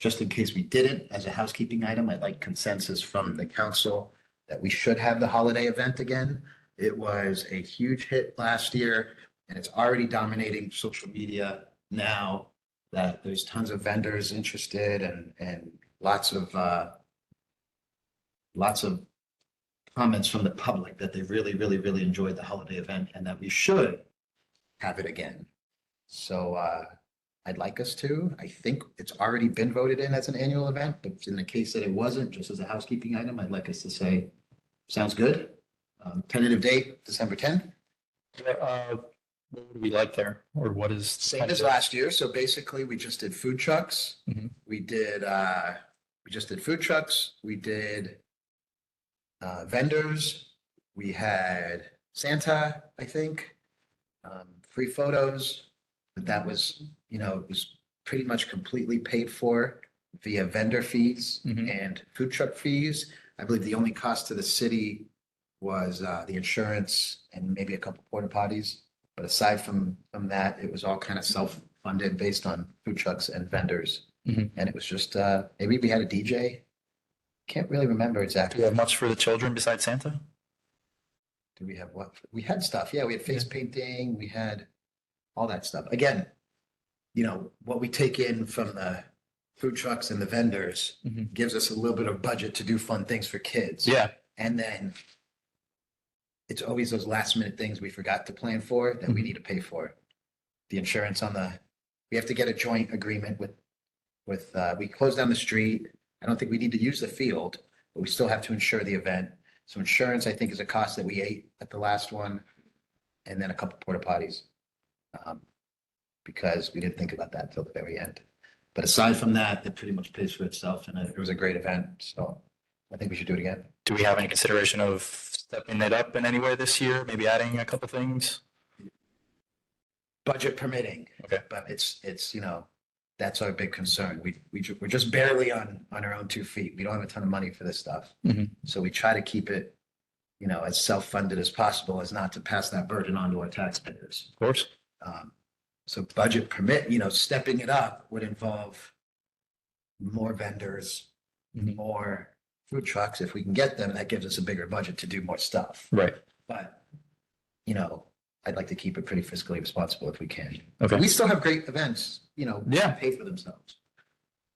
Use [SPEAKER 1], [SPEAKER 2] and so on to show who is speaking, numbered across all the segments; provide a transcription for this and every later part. [SPEAKER 1] Just in case we didn't, as a housekeeping item, I'd like consensus from the council that we should have the holiday event again. It was a huge hit last year and it's already dominating social media now that there's tons of vendors interested and, and lots of, uh, lots of comments from the public that they really, really, really enjoyed the holiday event and that we should have it again. So, uh, I'd like us to. I think it's already been voted in as an annual event, but in the case that it wasn't, just as a housekeeping item, I'd like us to say, sounds good. Um, tentative date, December tenth,
[SPEAKER 2] Uh, What would we like there, or what is? the
[SPEAKER 1] same
[SPEAKER 2] kind
[SPEAKER 1] as
[SPEAKER 2] of-
[SPEAKER 1] last year. So basically, we just did food trucks.
[SPEAKER 2] Mhm.
[SPEAKER 1] We did, uh, we just did food trucks. We did uh, vendors. We had Santa, I think, um, free photos. But that was, you know, it was pretty much completely paid for via vendor fees
[SPEAKER 2] Mhm.
[SPEAKER 1] and food truck fees. I believe the only cost to the city was uh, the insurance and maybe a couple porta potties. But aside from, from that, it was all kind of self-funded based on food trucks and vendors.
[SPEAKER 2] Mhm.
[SPEAKER 1] And it was just, uh, maybe we had a DJ. Can't really remember
[SPEAKER 2] Do we
[SPEAKER 1] exactly.
[SPEAKER 2] have much for the children besides Santa?
[SPEAKER 1] Do we have what? We had stuff. Yeah, we had face painting. We had all that stuff. Again, you know, what we take in from the food trucks and the vendors
[SPEAKER 2] Mhm.
[SPEAKER 1] gives us a little bit of budget to do fun things for kids.
[SPEAKER 2] Yeah,
[SPEAKER 1] And then it's always those last minute things we forgot to plan for that we need to pay for. The insurance on the, we have to get a joint agreement with, with, uh, we closed down the street. I don't think we need to use the field, but we still have to insure the event. So insurance, I think, is a cost that we ate at the last one. And then a couple porta potties. um, Because we didn't think about that till the very end. But aside from that, it pretty much pays for itself and it was a great event. So I think we should do it again.
[SPEAKER 2] do we have any consideration of stepping it up in any way this year, maybe adding a couple things?
[SPEAKER 1] budget permitting.
[SPEAKER 2] Okay.
[SPEAKER 1] But it's, it's, you know, that's our big concern. We, we, ju- we're just barely on, on our own two feet. We don't have a ton of money for this stuff.
[SPEAKER 2] Mhm.
[SPEAKER 1] So we try to keep it, you know, as self-funded as possible, as not to pass that burden on to our taxpayers.
[SPEAKER 2] Of course.
[SPEAKER 1] Um, So budget permit, you know, stepping it up would involve more vendors,
[SPEAKER 2] Mhm.
[SPEAKER 1] more food trucks. If we can get them, that gives us a bigger budget to do more stuff.
[SPEAKER 2] Right,
[SPEAKER 1] But, you know, I'd like to keep it pretty fiscally responsible if we can.
[SPEAKER 2] Okay.
[SPEAKER 1] We still have great events, you know.
[SPEAKER 2] Yeah.
[SPEAKER 1] that Pay for themselves.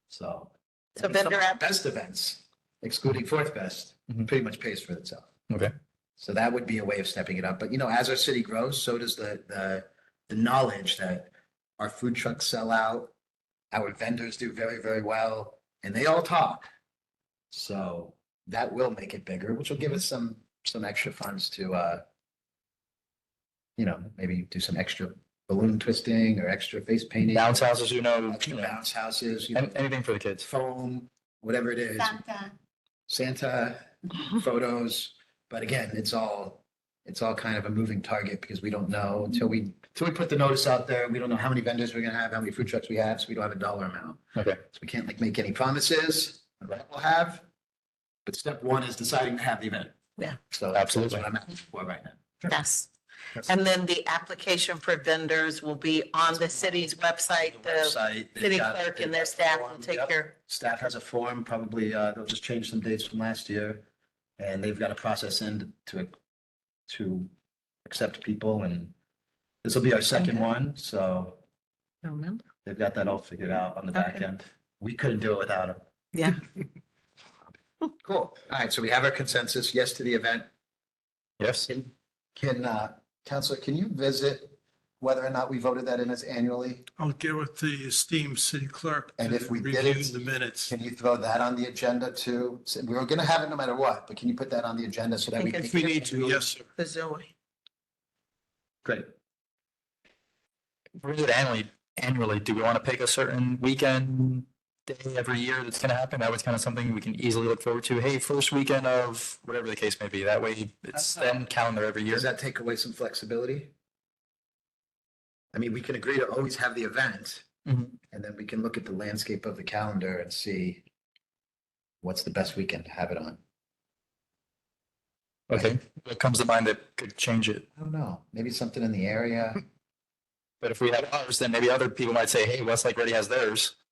[SPEAKER 1] So.
[SPEAKER 3] So
[SPEAKER 1] I mean, some of
[SPEAKER 3] vendor
[SPEAKER 1] our
[SPEAKER 3] app-
[SPEAKER 1] Best events, excluding Fourth Best,
[SPEAKER 2] Mhm.
[SPEAKER 1] pretty much pays for itself.
[SPEAKER 2] Okay.
[SPEAKER 1] So that would be a way of stepping it up. But you know, as our city grows, so does the, the, the knowledge that our food trucks sell out. Our vendors do very, very well and they all talk. So that will make it bigger, which will give us
[SPEAKER 2] Mm-hmm.
[SPEAKER 1] some, some extra funds to, uh, you know, maybe do some extra balloon twisting or extra face painting.
[SPEAKER 2] bounce houses, you know, you
[SPEAKER 1] Extra
[SPEAKER 2] know,
[SPEAKER 1] bounce houses, you know,
[SPEAKER 2] an- anything for the kids.
[SPEAKER 1] foam, whatever it is,
[SPEAKER 3] Santa.
[SPEAKER 1] Santa photos. But again, it's all, it's all kind of a moving target because we don't know until we, until we put the notice out there. We don't know how many vendors we're gonna have, how many food trucks we have, so we don't have a dollar amount.
[SPEAKER 2] Okay.
[SPEAKER 1] So we can't like make any promises on what we'll have. But step one is deciding to have the event.
[SPEAKER 3] Yeah.
[SPEAKER 1] So that's what
[SPEAKER 2] Absolutely.
[SPEAKER 1] I'm asking for right now.
[SPEAKER 3] Yes.
[SPEAKER 2] Yes.
[SPEAKER 3] And then the application for vendors will be on the city's website. The
[SPEAKER 1] Website, they've
[SPEAKER 3] city
[SPEAKER 1] got-
[SPEAKER 3] clerk
[SPEAKER 1] they've
[SPEAKER 3] and their
[SPEAKER 1] got
[SPEAKER 3] staff will
[SPEAKER 1] form,
[SPEAKER 3] take
[SPEAKER 1] yep.
[SPEAKER 3] care.
[SPEAKER 1] Staff has a form, probably, uh, they'll just change some dates from last year. And they've got a process in to, to accept people and this will be our second one, so
[SPEAKER 3] Remember?
[SPEAKER 1] they've got that all figured out on the back
[SPEAKER 3] Okay.
[SPEAKER 1] end. We couldn't do it without them.
[SPEAKER 3] Yeah.
[SPEAKER 1] Cool. All right, so we have our consensus, yes to the event.
[SPEAKER 2] Yes,
[SPEAKER 1] Can, can, uh, Counselor, can you visit whether or not we voted that in as annually?
[SPEAKER 4] I'll get with the esteemed city clerk.
[SPEAKER 1] And
[SPEAKER 4] to
[SPEAKER 1] if we
[SPEAKER 4] review
[SPEAKER 1] didn't-
[SPEAKER 4] The minutes.
[SPEAKER 1] Can you throw that on the agenda too? So We were gonna have it no matter what, but can you put that on the agenda so that we?
[SPEAKER 3] Because-
[SPEAKER 4] If we need to, yes, sir.
[SPEAKER 3] The Zoe.
[SPEAKER 1] Great.
[SPEAKER 2] If we did annually, annually, do we want to pick a certain weekend day every year that's going to happen? That was kind of something we can easily look forward to. Hey, first weekend of whatever the case may be. That way
[SPEAKER 1] uh,
[SPEAKER 2] it's then calendar every year.
[SPEAKER 1] Does that take away some flexibility? I mean, we can agree to always have the event,
[SPEAKER 2] Mhm.
[SPEAKER 1] and then we can look at the landscape of the calendar and see what's the best weekend to have it on.
[SPEAKER 2] Okay, what comes to mind that could change it?
[SPEAKER 1] I don't know, maybe something in the area.
[SPEAKER 2] But if we have ours, then maybe other people might say, hey, Westlake already has theirs.